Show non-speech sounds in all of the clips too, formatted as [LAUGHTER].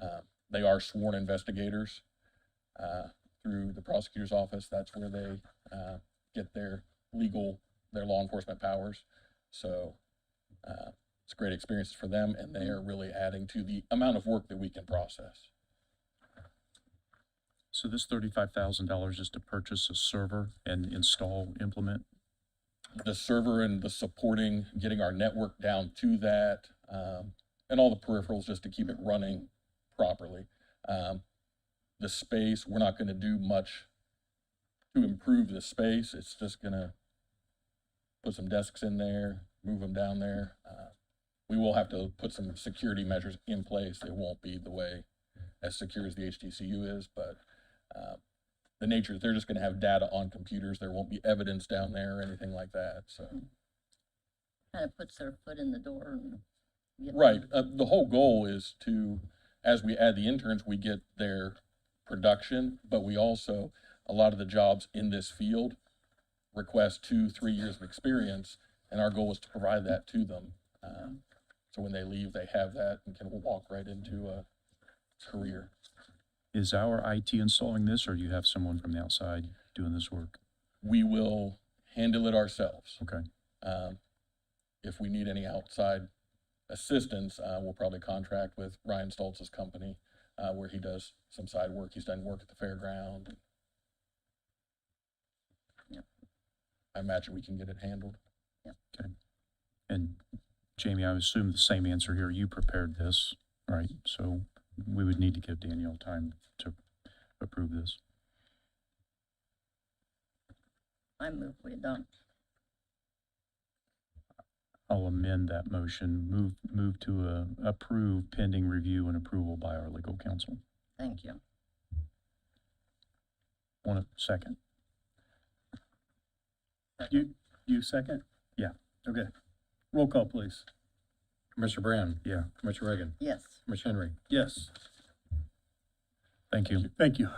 Uh, They are sworn investigators uh, through the prosecutor's office. That's where they uh, get their legal, their law enforcement powers. So uh, it's a great experience for them, and they are really adding to the amount of work that we can process. So this thirty-five thousand dollars is to purchase a server and install, implement? the server and the supporting, getting our network down to that, um, and all the peripherals just to keep it running properly. Um, the space, we're not gonna do much to improve the space. It's just gonna put some desks in there, move them down there. Uh, We will have to put some security measures in place. It won't be the way as secure as the HTCU is, but, uh, the nature is they're just gonna have data on computers. There won't be evidence down there or anything like that, so. kind of puts their foot in the door and. get them- Right, uh, the whole goal is to, as we add the interns, we get their production, but we also, a lot of the jobs in this field request two, three years of experience, and our goal is to provide that to them. Um, So when they leave, they have that and can walk right into a career. Is our IT installing this, or you have someone from the outside doing this work? We will handle it ourselves. Okay, Um, If we need any outside assistance, uh, we'll probably contract with Ryan Stoltz's company, uh, where he does some side work. He's done work at the fairground. Yep. I imagine we can get it handled. and Jamie, I assume the same answer here, you prepared this, right? So we would need to give Danielle time to approve this. I move we adopt. I'll amend that motion, move, move to uh, approve pending review and approval by our legal counsel. Thank you. Want a second? You, you second? Yeah. Okay. Roll call, please. Commissioner Brand, Yeah. Commissioner Reagan, Yes, Commissioner Henry. Yes. Thank you. Thank you.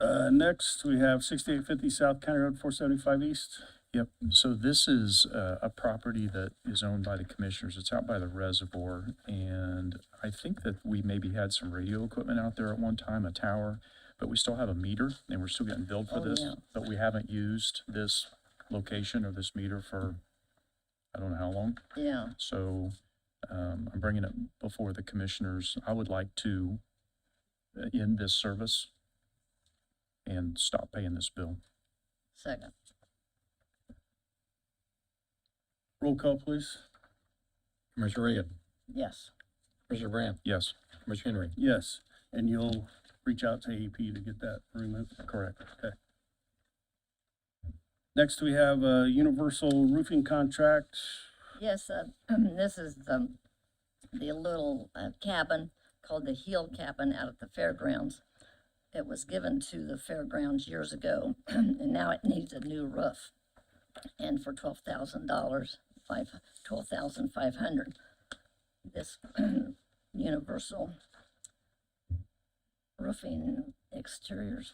Uh, next, we have sixty-eight fifty South County Road four seventy-five East. Yep, so this is uh, a property that is owned by the commissioners. It's out by the reservoir. And I think that we maybe had some radio equipment out there at one time, a tower, but we still have a meter and we're still getting billed for Oh, this. yeah. But we haven't used this location or this meter for, I don't know how long. yeah, So um, I'm bringing it before the commissioners. I would like to uh, end this service and stop paying this bill. second. Roll call, please. Commissioner Reagan, Yes, Commissioner Brand, Yes, Commissioner Henry. Yes, and you'll reach out to AEP to get that removed. correct. Next, we have a universal roofing contract. yes, uh, [CLEARS THROAT] this is the, the little uh, cabin called the Heel Cabin out at the fairgrounds. It was given to the fairgrounds years ago, [CLEARS THROAT] and now it needs a new roof. And for twelve thousand dollars, five, twelve thousand five hundred. This [CLEARS THROAT] universal roofing exteriors,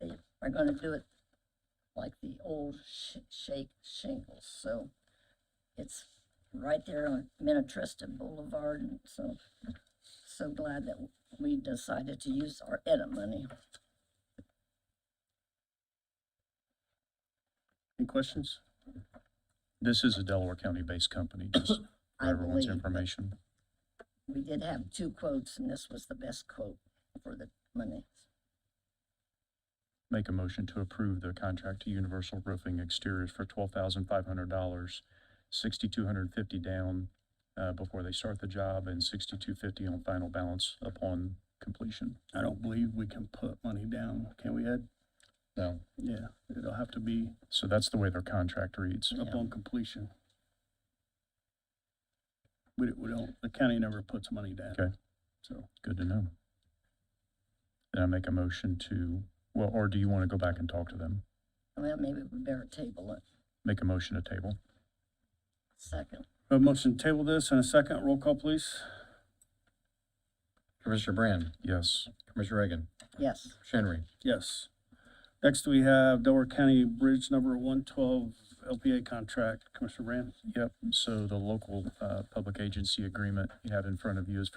they are gonna do it like the old sh- shake shingles, so it's right there on Minnetrista Boulevard, and so, so glad that we decided to use our edit money. Any questions? This is a Delaware County-based company, just for [COUGHS] I everyone's believe information. we did have two quotes, and this was the best quote for the money. Make a motion to approve the contract to Universal Roofing Exteriors for twelve thousand five hundred dollars, sixty-two hundred and fifty down, uh, before they start the job, and sixty-two fifty on final balance upon completion. I don't believe we can put money down, can we, Ed? No. Yeah, it'll have to be So that's the way their contract reads. upon completion. We, we don't, the county never puts money down. Okay. So, Good to know. Then I make a motion to, well, or do you want to go back and talk to them? Well, maybe we better table it. Make a motion to table. Second, a motion to table this and a second, roll call, please. Commissioner Brand, Yes, Commissioner Reagan, yes, Commissioner Henry. Yes. Next, we have Delaware County Bridge Number 112 LPA contract. Commissioner Brand? yep. So the local, uh, public agency agreement you have in front of you is